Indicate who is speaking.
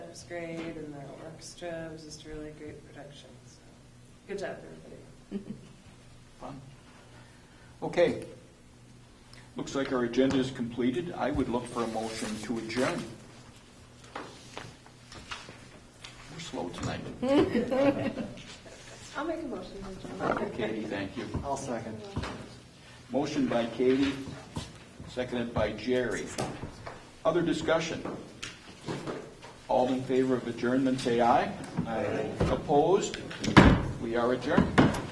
Speaker 1: grade and the orchestra. It was just a really great production. So good job, everybody.
Speaker 2: Fun. Okay. Looks like our agenda is completed. I would look for a motion to adjourn. We're slow tonight.
Speaker 3: I'll make a motion to adjourn.
Speaker 2: Katie, thank you.
Speaker 4: I'll second.
Speaker 2: Motion by Katie, seconded by Jerry. Other discussion? All in favor of adjournment, say aye. Aye. Opposed? We are adjourned.